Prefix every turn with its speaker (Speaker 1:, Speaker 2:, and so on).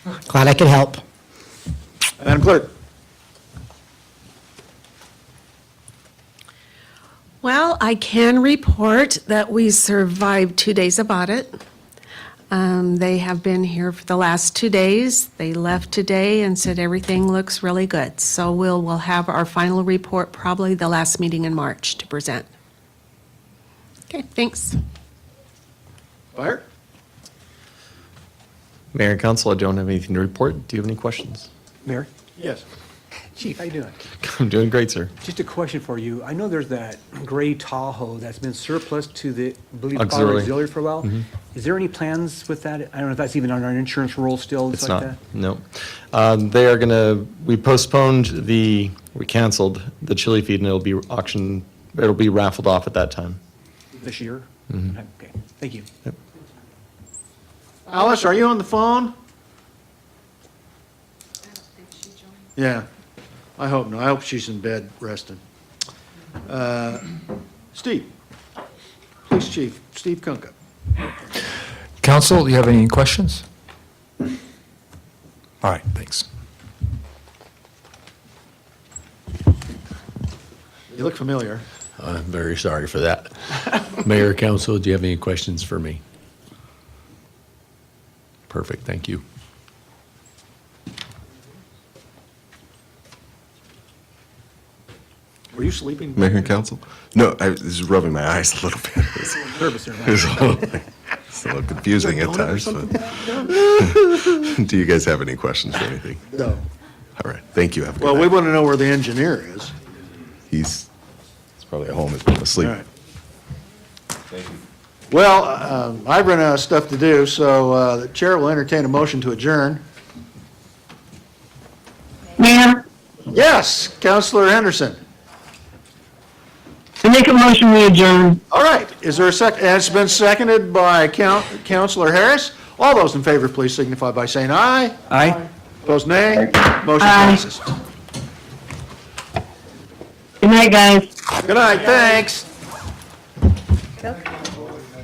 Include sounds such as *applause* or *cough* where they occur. Speaker 1: Glad I could help.
Speaker 2: Madam Clerk?
Speaker 3: Well, I can report that we survived two days of audit. Um, They have been here for the last two days. They left today and said everything looks really good. So we'll, we'll have our final report probably the last meeting in March to present. Okay, thanks.
Speaker 2: Fire?
Speaker 4: Mayor and council, I don't have anything to report. Do you have any questions? *laughs*
Speaker 5: Mayor?
Speaker 2: Yes.
Speaker 5: Chief, how you doing?
Speaker 4: I'm doing great, sir.
Speaker 5: Just a question for you. I know there's that gray Tahoe that's been surplus to the, I believe, auto
Speaker 4: Auxiliary. Mm-hmm.
Speaker 5: auxiliary for a while. Is there any plans with that? I don't know if that's even on our insurance roll still,
Speaker 4: It's
Speaker 5: it's like
Speaker 4: not,
Speaker 5: that?
Speaker 4: no. Um, They are going to, we postponed the, we canceled the chili feed and it'll be auctioned, it'll be raffled off at that time.
Speaker 5: This year?
Speaker 4: Mm-hmm.
Speaker 5: Okay, thank you.
Speaker 2: Alice, are you on the phone? Yeah, I hope not. I hope she's in bed resting. Uh, Steve? Police Chief, Steve Kunkka.
Speaker 6: Council, do you have any questions? All right, thanks.
Speaker 2: You look familiar.
Speaker 7: I'm very sorry for that. Mayor, council, do you have any questions for me? Perfect, thank you.
Speaker 2: Were you sleeping?
Speaker 8: Mayor and council? No, I was just rubbing my eyes a little bit. It's,
Speaker 5: Nervous there, right?
Speaker 8: it's a, little, it's a little confusing at times. But *laughs* do you guys have any questions or anything?
Speaker 2: No.
Speaker 8: All right, thank you. Have a good
Speaker 2: Well, we
Speaker 8: night.
Speaker 2: want to know where the engineer is.
Speaker 8: He's, he's probably at home. He's probably asleep.
Speaker 2: All right. Well, um, I've run out of stuff to do, so uh, the chair will entertain a motion to adjourn.
Speaker 9: Mayor,
Speaker 2: Yes, Counselor Henderson.
Speaker 9: I make a motion we adjourn.
Speaker 2: All right, is there a sec, and it's been seconded by Coun- Counselor Harris. All those in favor, please signify by saying aye.
Speaker 5: Aye?
Speaker 2: Opposed, nay. Motion
Speaker 9: Aye.
Speaker 2: passes.
Speaker 9: Good night, guys.
Speaker 2: Good night, thanks.